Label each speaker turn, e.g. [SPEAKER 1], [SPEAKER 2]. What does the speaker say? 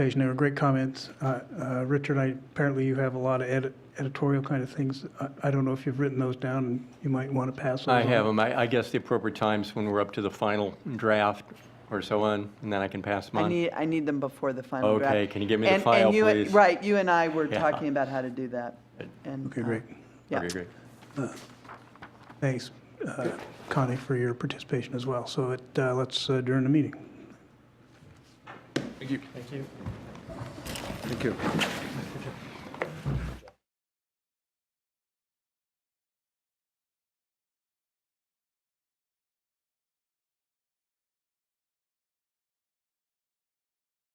[SPEAKER 1] presentation. They were great comments. Uh, uh, Richard, I, apparently you have a lot of edit- editorial kind of things. I- I don't know if you've written those down, and you might want to pass those
[SPEAKER 2] I
[SPEAKER 1] on.
[SPEAKER 2] have them. I I guess the appropriate times when we're up to the final draft or so on, and then I can pass them
[SPEAKER 3] I
[SPEAKER 2] on.
[SPEAKER 3] need, I need them before the final draft.
[SPEAKER 2] Okay, can you give me the
[SPEAKER 3] And- and
[SPEAKER 2] file,
[SPEAKER 3] you-
[SPEAKER 2] please?
[SPEAKER 3] Right, you and I were
[SPEAKER 2] Yeah.
[SPEAKER 3] talking about how to do that. and,
[SPEAKER 1] Okay,
[SPEAKER 3] uh,
[SPEAKER 1] great.
[SPEAKER 3] Yeah.
[SPEAKER 2] Okay, great.
[SPEAKER 1] Thanks, uh, Connie, for your participation as well. So it, uh, let's adjourn the meeting.
[SPEAKER 4] Thank you.